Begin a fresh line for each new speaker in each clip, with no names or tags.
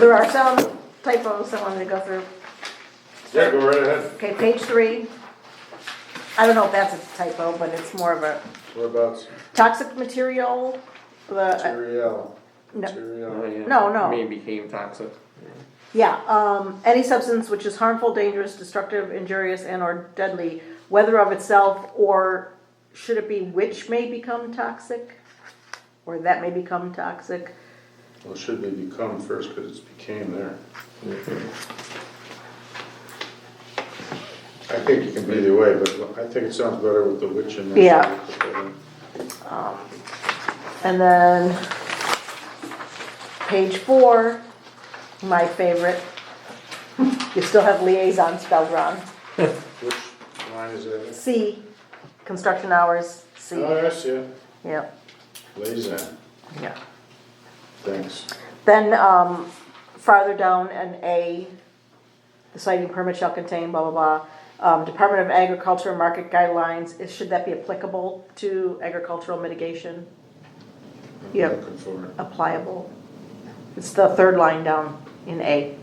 there are some typos I wanted to go through.
Yeah, go right ahead.
Okay, page three. I don't know if that's a typo, but it's more of a
Whereabouts?
toxic material, the,
Material.
No.
Oh,
Material.
yeah.
No, no.
Maybe became toxic.
yeah, um, any substance which is harmful, dangerous, destructive, injurious, and or deadly, whether of itself or should it be which may become toxic? Or that may become toxic?
Well, should they become first, because it's became there. I think it can be either way, but I think it sounds better with the witch in there.
Yeah. And then page four, my favorite. You still have liaison spelled wrong.
Which line is that?
C, construction hours, C.
Oh, I see it.
Yep,
Liaison,
yeah.
thanks.
Then, um, farther down in A, the citing permit shall contain blah, blah, blah. Um, Department of Agriculture market guidelines, is- should that be applicable to agricultural mitigation?
I'm
Yeah.
Looking for it.
Applicable. It's the third line down in A.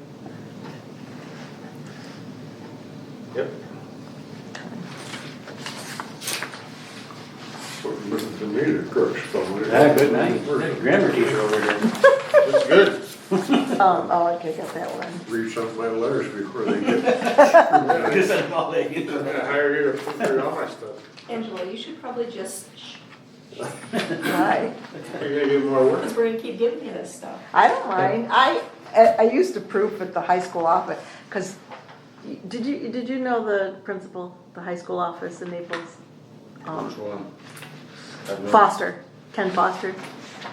Yep.
The meter crooks probably.
Yeah, Ah, good night. Grammar teacher over there.
That's good.
Um, oh, I could get that one.
Read some of my letters before they get.
Because I'm all day.
I'm gonna hire you to print all my stuff.
Angela, you should probably just, shh,
Why?
You're gonna get more work.
because we're gonna keep giving you this stuff.
I don't mind. I, I I used to proof at the high school office, because, did you, did you know the principal, the high school office in Naples? Um,
Which one? I've no-
Foster, Ken Foster.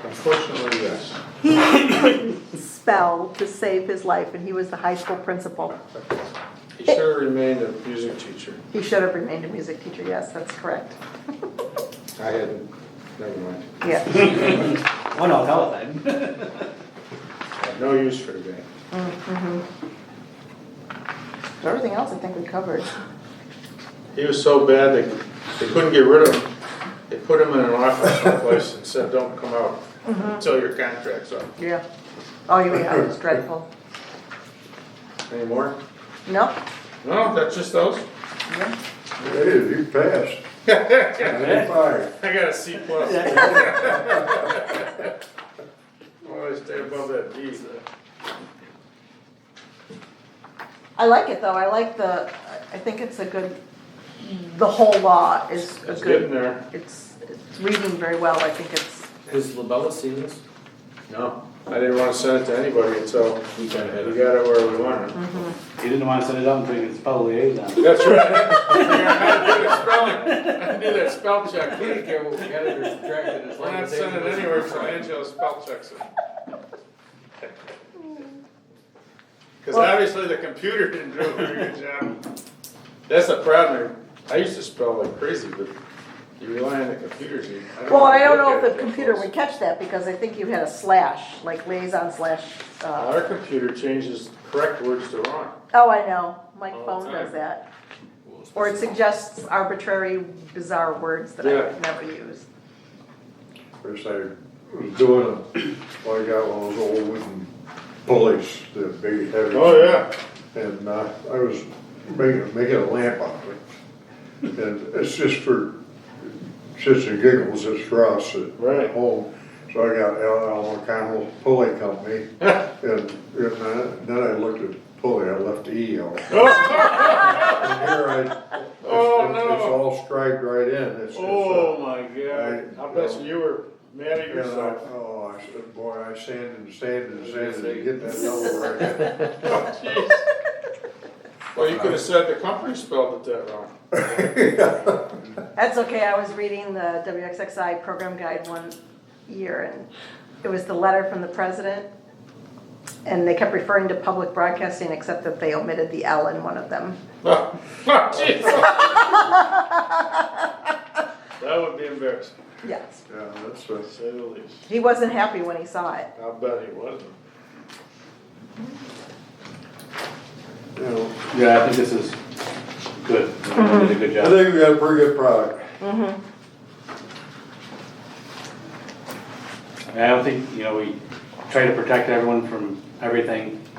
Unfortunately, yes.
He couldn't spell to save his life, and he was the high school principal.
He should have remained a music teacher.
He should have remained a music teacher, yes, that's correct.
I hadn't, never mind.
Yeah,
One out hell of a time.
I had no use for the guy.
So everything else I think we covered.
He was so bad, they, they couldn't get rid of him. They put him in an office someplace and said, don't come out until your contract's up.
Yeah. Oh, yeah, it was dreadful.
Any more?
Nope.
No, that's just those.
Yeah.
Hey, you passed.
I
Fire.
got a C plus. Always stay above that D.
I like it, though. I like the, I think it's a good, the whole law is a
It's getting
good,
there.
it's, it's reading very well. I think it's,
Has Labella seen this?
No, I didn't wanna send it to anybody until
He got
we got it where we wanted.
He didn't want to set it up until he could spell liaison.
That's right. I knew that spelling, I knew that spell check. We didn't care what we got it or subtracted, it's like. We're not sending anywhere from Angelo spell checks it. Cause obviously the computer didn't do a very good job. That's the problem, I used to spell like crazy, but you rely on the computers. you- don't
well, I don't
look
know
at
if
it
the
that
computer
close.
would catch that because I think you had a slash, like liaison slash, uh,
Our computer changes correct words to wrong.
Oh, I know, my
All the
phone
time.
does that. Or it suggests arbitrary bizarre words that I would never use.
First I was doing, a- well, I got one of those old wooden pulleys, the big heavy.
Oh, yeah.
And uh, I was making, making a lamp out of it. And it's just for, shits and giggles, it's for us at
Right.
home. So I got Al O'Connell Pulley Company. And, and I- then I looked at pulley, I left the E out. And here I, it's,
Oh,
it's- it's
no.
all striped right in. It's just, uh,
Oh, my
I-
God, I bet you were mad at
and I-
yourself.
Oh, I said, boy, I sanded and sanded and sanded to get that yellow right.
Jeez. Well, you could have said the company spelled it that wrong.
That's okay, I was reading the WXXI program guide one year and it was the letter from the president. And they kept referring to public broadcasting, except that they omitted the L in one of them.
Oh, jeez. That would be embarrassing,
Yes,
Yeah, that's what.
to say the least.
he wasn't happy when he saw it.
I bet he wasn't.
You know,
Yeah, I think this is good. You Did a good
I
job.
think we got a pretty good product.
I don't think, you know, we try to protect everyone from everything